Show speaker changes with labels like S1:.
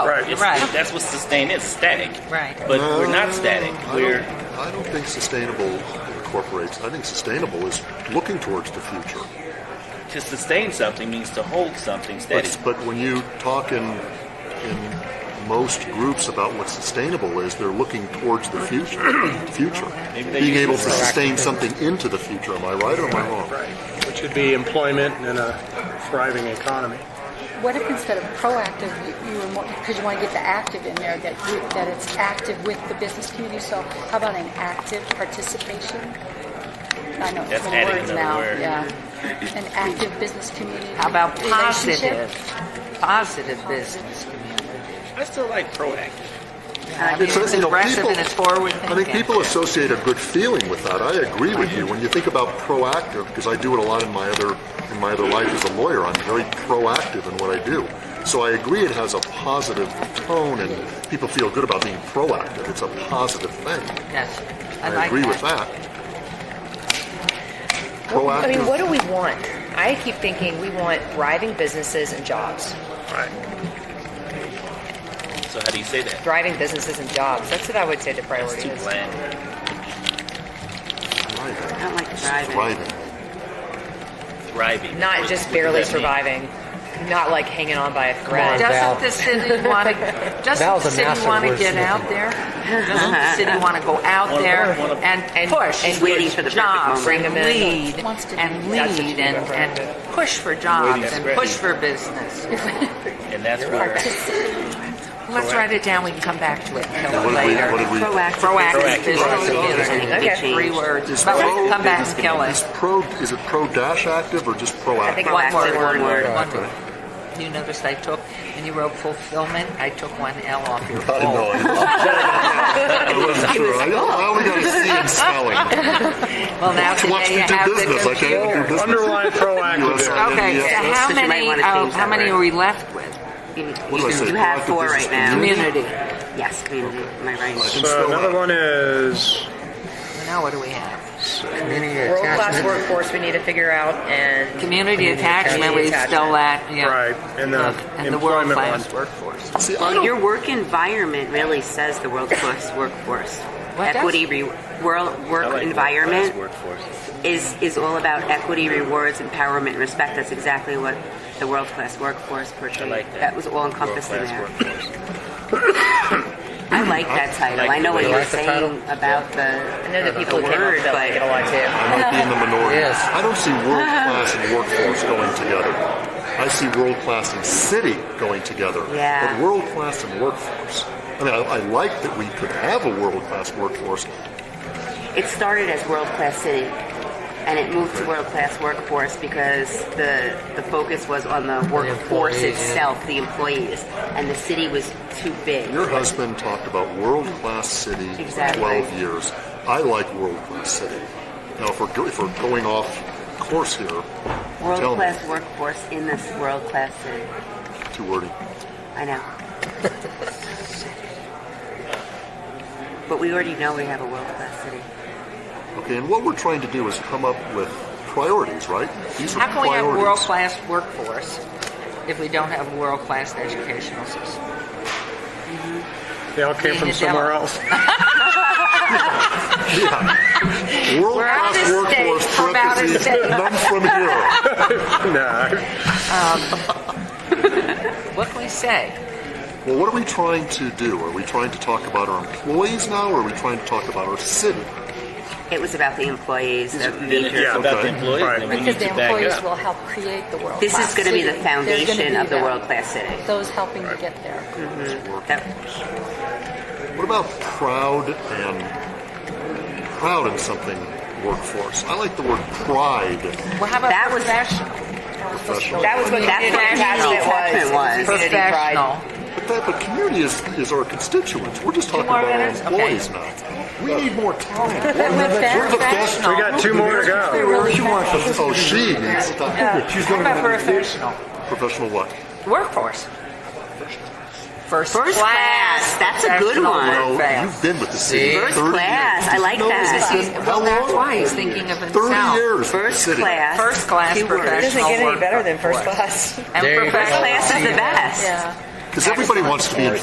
S1: hard. It's,
S2: Oh, Right.
S1: That's what sustain is static.
S2: Right.
S1: But we're not static.
S3: I don't-
S1: We're
S3: I don't think sustainable incorporates. I think sustainable is looking towards the future.
S1: to sustain something means to hold something steady.
S3: But, but when you talk in in most groups about what sustainable is, they're looking towards the future. future.
S1: Maybe they
S3: Being
S1: use
S3: able
S1: the
S3: to sustain something into the future. Am I right or am I wrong?
S4: which would be employment and a thriving economy.
S5: What if instead of proactive, you, you were more, because you want to get the active in there, that, you, that it's active with the business community, so how about an active participation? I know, it's
S1: That's
S5: many
S1: adding
S5: words
S1: another
S5: now,
S1: word.
S5: yeah. An active business community.
S2: How about
S5: relationship?
S2: positive? Positive business community.
S1: I still like proactive.
S2: I mean,
S3: It's, uh,
S2: it's
S3: you know,
S2: aggressive
S3: people-
S2: and it's forward
S3: I think
S2: thinking.
S3: people associate a good feeling with that. I agree with you. When you think about proactive, because I do it a lot in my other in my other life as a lawyer, I'm very proactive in what I do. So I agree it has a positive tone and people feel good about being proactive. It's a positive thing.
S2: Yes. I,
S3: I,
S2: like
S3: agree
S2: that.
S3: with that.
S6: I
S3: Proactive.
S6: mean, what do we want? I keep thinking we want thriving businesses and jobs.
S1: So how do you say that?
S6: Thriving businesses and jobs. That's what I would say the
S1: It's
S6: priority
S1: too
S6: is.
S1: bland.
S3: Thriving.
S2: I don't like
S3: It's
S2: driving.
S3: thriving.
S1: Thriving.
S6: Not
S1: What-
S6: just
S1: what
S6: barely
S1: does that mean?
S6: surviving, not like hanging on by a thread.
S2: Doesn't the city want to? Doesn't
S7: Val's
S2: the
S7: a
S2: city
S7: master
S2: want to get
S7: wordsmith.
S2: out there? Doesn't the city want to go out
S1: One-
S2: there
S1: one of-
S2: and
S6: And-
S2: push
S6: and
S2: for
S6: waiting for the perfect
S2: jobs
S6: moment.
S2: and
S6: Bring 'em
S2: lead
S5: Wants to do
S2: and
S5: that.
S6: That's what
S2: lead
S6: you
S2: and,
S6: recommend.
S2: and push for jobs
S1: Waiting
S2: and
S1: for
S2: push
S1: it.
S2: for business?
S1: And that's where
S2: Let's write it down. We can come back to it
S3: What did we?
S2: later.
S3: What did we?
S2: Proactive business community.
S6: Okay.
S2: Three words,
S3: Is
S2: but we
S3: pro-
S2: can come back
S3: is-
S2: and kill
S3: Is
S2: it.
S3: pro? Is it pro dash active or just proactive?
S6: I think
S2: One
S6: Proactive,
S2: word.
S6: one word.
S2: One word. You noticed I took, when you wrote fulfillment, I took one L off your
S3: I know.
S2: poll.
S3: I wasn't sure. I, I only got a C in spelling.
S2: Well, now
S3: She wants
S2: today
S3: me
S2: you
S3: to
S2: have
S3: do
S2: the
S3: business. I can't do
S2: computer.
S3: business.
S4: Underline proactive
S3: US,
S4: there.
S2: Okay,
S3: NES.
S2: so how
S8: you might
S2: many,
S8: wanna
S2: oh,
S8: change
S2: how
S8: that
S2: many
S8: word.
S2: are we left with?
S8: You, you,
S3: What do I say?
S8: you have
S3: Proactive
S8: four
S3: business
S8: right now.
S2: Community.
S8: Yes, community. Am I right?
S4: So another one is
S2: Now what do we have?
S6: World class workforce we need to figure out and
S2: Community attachment, we
S6: attachment.
S2: still that, yeah.
S4: Right, and the
S2: And the world
S4: employment
S2: class
S4: one.
S2: workforce.
S3: See, I
S8: Well,
S3: don't-
S8: your work environment really says the world class workforce.
S2: What does?
S8: Equity, re- world work
S1: I like
S8: environment
S1: workforce, workforce.
S8: is is all about equity, rewards, empowerment, and respect. That's exactly what the world class workforce portrayed.
S1: like that.
S8: was all encompassed in
S1: World-class
S8: there.
S1: workforce.
S8: I like that title.
S1: I like
S8: I
S1: the
S8: know what
S1: way
S8: you're
S1: you
S7: the
S1: like
S8: saying about the
S6: I know that people
S8: the
S6: who came up
S8: word,
S6: with that
S8: but
S6: like it a lot too.
S3: I might be in the minority.
S7: Yes.
S3: I don't see world class and workforce going together. I see world class and city going together.
S8: Yeah.
S3: But world class and workforce. I mean, I, I like that we could have a world class workforce.
S8: It started as world class city, and it moved to world class workforce because the the focus was on the workforce
S7: employees, yeah.
S8: itself, the employees, and the city was too big.
S3: Your husband talked about world class city
S8: Exactly.
S3: for 12 years. I like world class city. Now, if we're, go- if we're going off course here, tell
S8: World
S3: me.
S8: class workforce in this world class city.
S3: Too wordy.
S8: I know. but we already know we have a world class city.
S3: Okay, and what we're trying to do is come up with priorities, right? These are
S2: How can we have
S3: priorities.
S2: world-class workforce if we don't have world-class educational system?
S4: They all came
S2: Being
S4: from
S2: a
S4: somewhere
S2: devil.
S4: else.
S3: World class
S2: We're out of state.
S3: workforce
S2: We're out of
S3: parentheses
S2: state.
S3: none from here.
S4: No,
S2: What can we say?
S3: Well, what are we trying to do? Are we trying to talk about our employees now, or are we trying to talk about our city?
S8: It was about the employees. the
S1: Then if
S8: major-
S1: it's
S4: Yeah,
S1: about
S3: okay.
S1: the employees,
S4: Right.
S1: then we need
S5: Because the
S1: to back
S5: employees
S1: up.
S5: will help create the world.
S8: This is going to be the
S5: They're gonna be
S8: foundation of the
S5: that.
S8: world class city.
S5: Those helping to get there.
S8: That-
S3: What about proud and proud in something workforce? I like the word pride.
S2: Well, how about
S8: That was-
S2: professional?
S3: Professional.
S6: That was what
S8: That's what
S6: attachment
S8: attachment was.
S6: was. Community pride.
S2: Professional.
S3: But that, but community is, is our constituents. We're just talking
S2: more
S3: about our
S2: minutes? Okay.
S3: employees now. We need more time. We're
S5: went
S3: the
S5: fast.
S3: best.
S4: we got two more to go.
S3: Oh, she needs time.
S7: She's
S2: How
S7: going
S2: about
S7: to
S2: professional?
S3: Professional what?
S2: Workforce. First,
S8: First class. That's a good
S2: Professional
S8: one.
S2: work
S3: Well,
S2: fast.
S3: you've been with the city
S7: See?
S3: 30
S8: First class.
S3: years.
S8: I like
S3: No, it's
S8: that.
S3: been-
S2: Well,
S3: how
S2: that's
S3: long?
S2: why he's thinking of
S3: 30
S2: himself.
S3: years. with the
S8: First
S3: city.
S8: class.
S2: First class
S8: Two words.
S2: professional.
S8: It doesn't
S2: get any better than first class. And
S7: There you go.
S8: First
S2: professional.
S8: class is the best.
S5: Yeah.
S3: Because everybody wants to be in